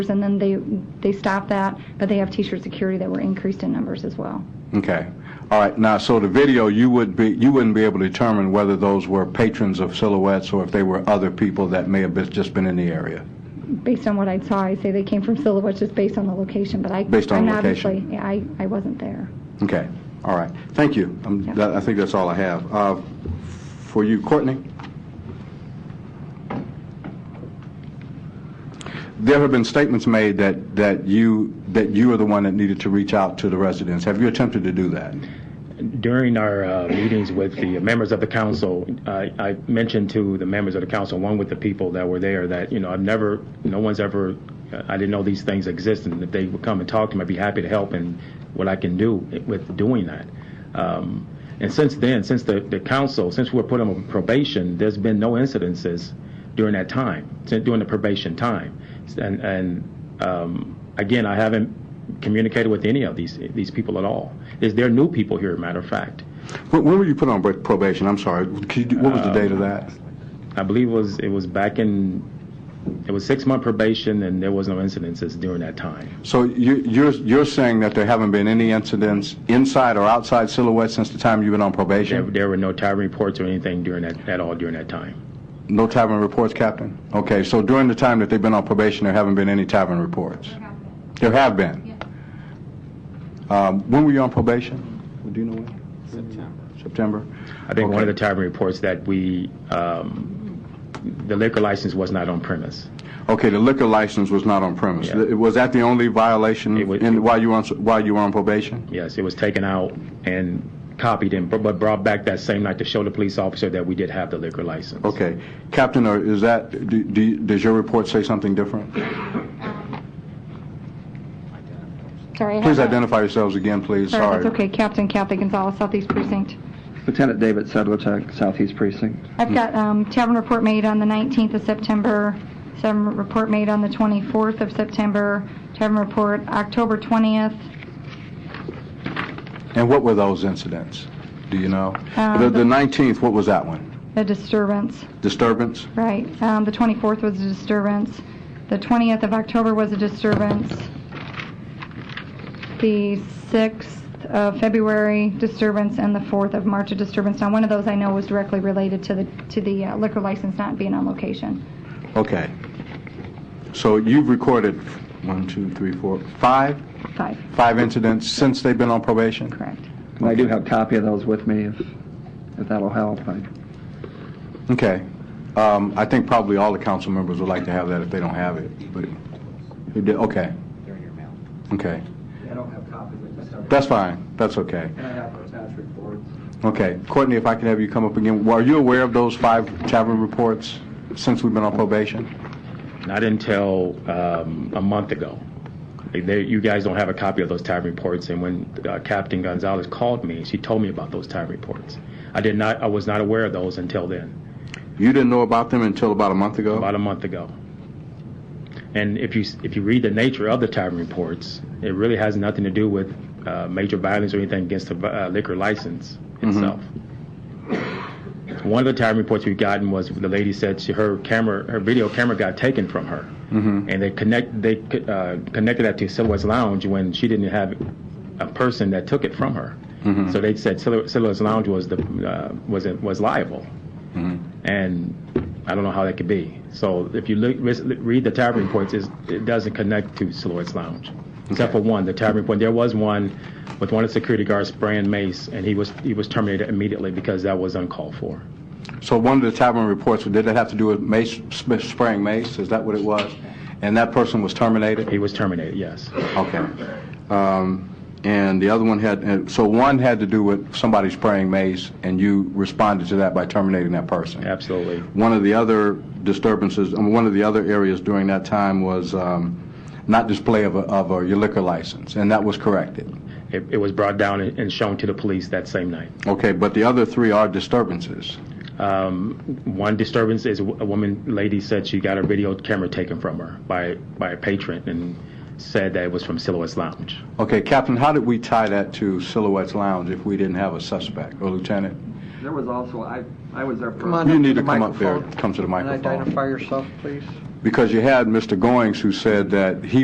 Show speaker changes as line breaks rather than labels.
and then they, they staff that, but they have T-shirt security that were increased in numbers as well.
Okay. All right. Now, so the video, you would be, you wouldn't be able to determine whether those were patrons of Silhouettes or if they were other people that may have been, just been in the area.
Based on what I saw, I say they came from Silhouette just based on the location, but I.
Based on
I'm
location.
obviously- yeah, I, I wasn't there.
Okay. All right. Thank you. Um,
Yep.
that, I think that's all I have. Uh, for you, Courtney? There have been statements made that, that you, that you are the one that needed to reach out to the residents. Have you attempted to do that?
During our uh, meetings with the members of the council, I I mentioned to the members of the council, along with the people that were there, that, you know, I've never, no one's ever, I didn't know these things existed, and if they would come and talk to me, I'd be happy to help and what I can do with doing that. Um, And since then, since the the council, since we were put on probation, there's been no incidences during that time, since- during the probation time. And and um, again, I haven't communicated with any of these these people at all. Is there new people here? Matter of fact,
When, when were you put on br- probation? I'm sorry. Could you, what was the date of that?
I believe it was it was back in it was six month probation, and there was no incidences during that time.
So you- you're you're saying that there haven't been any incidents inside or outside Silhouette since the time you've been on
There,
probation?
there were no tavern reports or anything during that at all during that time.
No tavern reports, Captain? Okay, so during the time that they've been on probation, there haven't been any tavern reports? There have been? Um, When were you on probation? Do you know when? September. September?
I think one of
Okay.
the tavern reports that we um, the liquor license was not on premise.
Okay, the liquor license was not on premise.
Yeah.
Th- Was that the only violation
It was-
in- while you were on s- while you were on probation?
Yes, it was taken out and copied and br- but brought back that same night to show the police officer that we did have the liquor license.
Okay. Captain, or is that, do- do you- does your report say something different?
Sorry. I
Please
have a-
identify yourselves again, please.
Sorry,
Sorry.
that's okay. Captain Kathy Gonzalez, Southeast Precinct.
Lieutenant David Sedlicek, Southeast Precinct.
Hmm.
I've got um, tavern report made on the 19th of September, tavern report made on the 24th of September, tavern report October 20th.
And what were those incidents? Do you know?
Uh,
The
the-
the 19th, what was that one?
A disturbance,
Disturbance?
right. Um, The 24th was a disturbance. The 20th of October was a disturbance. The 6th of February, disturbance, and the 4th of March, a disturbance. Now, one of those I know was directly related to the to the uh, liquor license not being on location.
Okay. So you've recorded one, two, three, four, five,
Five,
five incidents since they've been on probation?
correct.
And I do have a copy of those with me if, if that'll help. I-
Okay. Um, I think probably all the council members would like to have that if they don't have it, but, you did- okay,
They're in your mail.
okay.
I don't have copies, I just have.
That's fine, that's okay.
And I have attached reports.
Okay. Courtney, if I could have you come up again, are you aware of those five tavern reports since we've been on probation?
Not until um, a month ago. They, you guys don't have a copy of those time reports, and when uh, Captain Gonzalez called me, she told me about those time reports. I did not, I was not aware of those until then,
You didn't know about them until about a month ago?
about a month ago. And if you s- if you read the nature of the time reports, it really has nothing to do with uh, major violence or anything against the vi- uh, liquor license itself. One of the time reports we've gotten was the lady said she, her camera, her video camera got taken from her, and they connect they uh, connected that to Silhouette's Lounge when she didn't have a person that took it from her. So they said Silhou- Silhouette's Lounge was the uh, was was liable, and I don't know how that could be. So if you look, ris- read the time reports, it's, it doesn't connect to Silhouette's Lounge, except for one. The time report there was one with one of the security guards spraying mace, and he was he was terminated immediately because that was uncalled for.
So one of the tavern reports, did it have to do with mace, sp- spraying mace? Is that what it was? And that person was terminated?
He was terminated, yes.
Okay. Um, And the other one had, and- so one had to do with somebody spraying mace, and you responded to that by terminating that person?
Absolutely.
One of the other disturbances, I mean, one of the other areas during that time was um, not display of a- of a- your liquor license, and that was corrected?
It, it was brought down and and shown to the police that same night.
Okay, but the other three are disturbances?
Um, one disturbance is a w- a woman, lady said she got her video camera taken from her by, by a patron and said that it was from Silhouette's Lounge.
Okay, Captain, how did we tie that to Silhouette's Lounge if we didn't have a suspect? Or Lieutenant?
There was also, I, I was there for...
You need to come up there, come to the microphone.
identify yourself, please.
Because you had Mr. Goings who said that he